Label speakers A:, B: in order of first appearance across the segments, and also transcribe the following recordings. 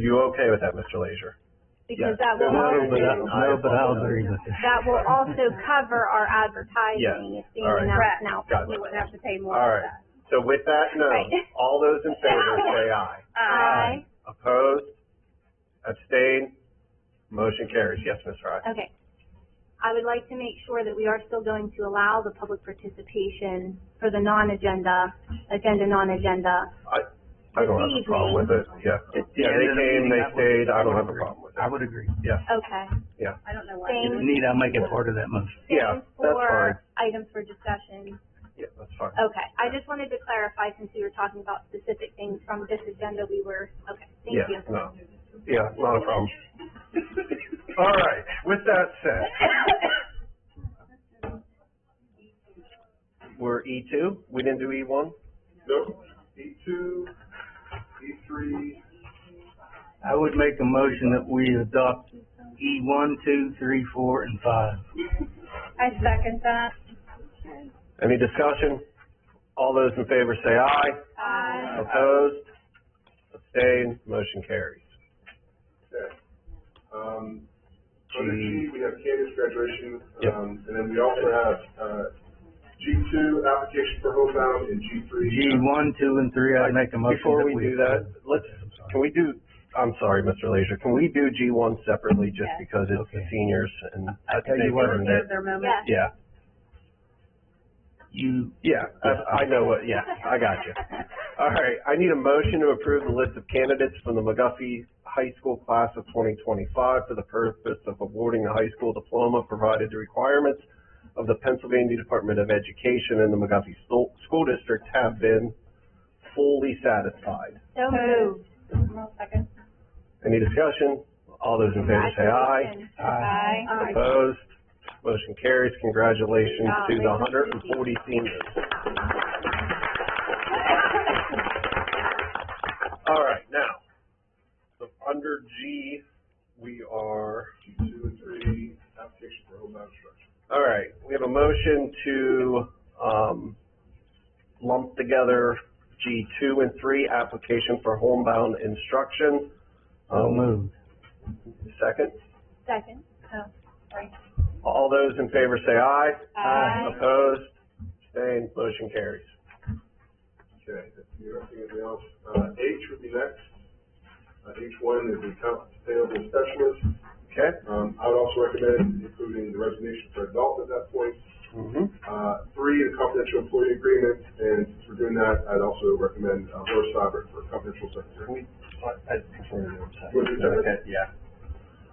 A: you okay with that, Mr. Leisure?
B: because
A: Yes.
B: that will
C: No, but, I-
B: also,
C: no, but I'll agree with you.
B: that will also cover our advertising,
A: Yes.
B: assuming
A: All
B: that's now,
A: Got
B: we
A: it.
B: would have to pay more
A: All
B: for
A: right.
B: that.
A: So with that known,
B: Right.
A: all those in favor say aye.
B: Aye.
A: Opposed? Abstained? Motion carries. Yes, Ms. Frye?
B: Okay. I would like to make sure that we are still going to allow the public participation for the non-agenda, agenda, non-agenda.
A: I don't have a problem with it. Yeah.
C: It's the
A: Yeah, they
C: end of the
A: came,
C: meeting,
A: they
C: I would-
A: stayed. I don't have a problem with it.
C: I would agree.
B: Okay.
A: Yeah.
B: I don't know
D: why.
C: If
B: Same,
C: need, I'll make it part of that motion.
A: Yeah,
B: same
A: that's fine.
B: for Oh, items for discussion.
A: Yeah, that's fine.
B: Okay, I just wanted to clarify since we were talking about specific things from this agenda, we were, okay, thank
A: Yeah,
B: you.
A: no. Yeah, not a problem. All right, with that said. We're E two? We didn't do E one?
E: Nope, E two, E three,
C: I would make a motion that we adopt E one, two, three, four, and five.
D: I second that.
A: Any discussion? All those in favor say aye.
D: Uh,
B: Aye.
A: Opposed? Abstained? Motion carries.
E: okay. Um, under G, we have Candace graduation,
A: Yep.
E: um, and then we also have, uh, G two, application for homebound, and G three.
C: G one, two, and three, I'd make a motion
A: Before
C: that
A: we
C: we.
A: do that, let's, can we do, I'm sorry, Mr. Leisure, can we do G one separately just
D: Yes.
A: because it's the
C: Okay.
A: seniors and I
C: tell
A: think
C: you
A: they
C: what.
A: earned it?
D: Reserve their moment.
B: Yes,
A: Yeah,
C: You,
A: yeah, I, I know what, yeah, I got you. All right, I need a motion to approve the list of candidates from the McGuffey High School class of twenty twenty-five for the purpose of awarding the high school diploma provided the requirements of the Pennsylvania Department of Education and the McGuffey School, School District have been fully satisfied.
B: so moved.
D: I'll second.
A: Any discussion? All those in favor say aye.
B: Congratulations.
D: Aye.
A: Opposed? Motion carries. Congratulations to the hundred and forty seniors. All right, now, so under G, we are,
E: G two and three, application for homebound instruction.
A: all right, we have a motion to, um, lump together G two and three, application for homebound instruction.
C: so moved.
A: Second?
B: Second.
A: All those in favor say aye.
B: Aye.
A: Opposed? Abstained? Motion carries.
E: Okay, if you have anything else, uh, H would be next. Uh, H one is the accounts payable specialist.
A: Okay?
E: Um, I would also recommend including the resignation for adult at that point.
A: Mm-hmm.
E: Uh, three, the confidential employee agreement, and since we're doing that, I'd also recommend, uh, Laura Steiber for confidential secretary.
A: I prefer the
E: Would you do it?
A: Yeah.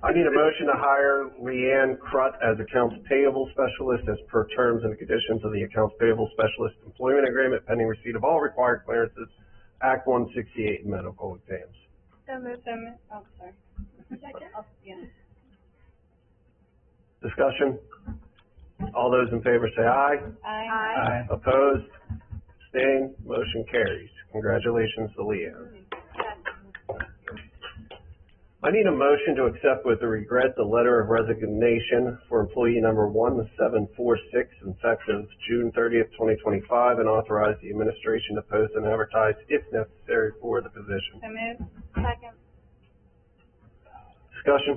A: I need a motion to hire Leanne Crut as accounts payable specialist as per terms and conditions of the accounts payable specialist employment agreement pending receipt of all required clearances, Act one sixty-eight medical exams.
D: So moved. So moved. Oh, sorry. I'll- yeah.
A: Discussion? All those in favor say aye.
D: Aye.
B: Aye.
C: Aye.
A: Opposed? Abstained? Motion carries. Congratulations to Leanne. I need a motion to accept with regret the letter of resignation for employee number one seven four six effective June thirtieth, twenty twenty-five, and authorize the administration to post and advertise if necessary for the position.
D: So moved.
B: Second.
A: Discussion?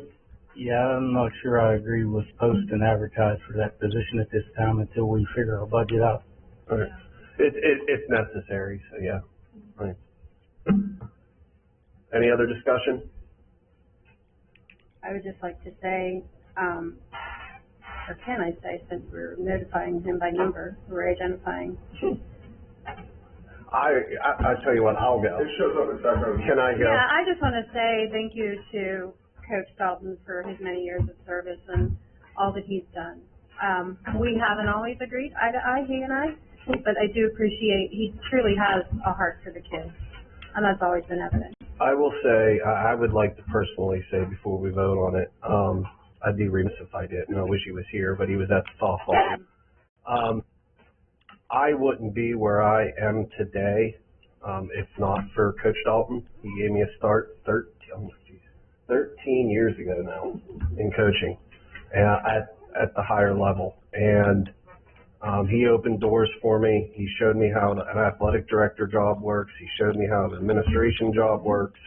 C: Yeah, I'm not sure I agree with post and advertise for that position at this time until we figure our budget out.
A: Okay. It, it, it's necessary, so yeah. Right. Any other discussion?
D: I would just like to say, um, or can I say, since we're notifying him by number, we're identifying.
A: I, I, I tell you what, I'll go.
E: It shows up in background.
A: Can I go?
D: Yeah, I just want to say thank you to Coach Dalton for his many years of service and all that he's done. Um, we haven't always agreed eye to eye, he and I, but I do appreciate, he truly has a heart for the kids. And that's always been evident.
A: I will say, I, I would like to personally say before we vote on it, um, I'd be remiss if I didn't. I wish he was here, but he was at the softball. game. Um, I wouldn't be where I am today, um, if not for Coach Dalton. He gave me a start thirteen, oh, geez, thirteen years ago now in coaching, and at, at the higher level. And, um, he opened doors for me. He showed me how an athletic director job works. He showed me how an administration job works.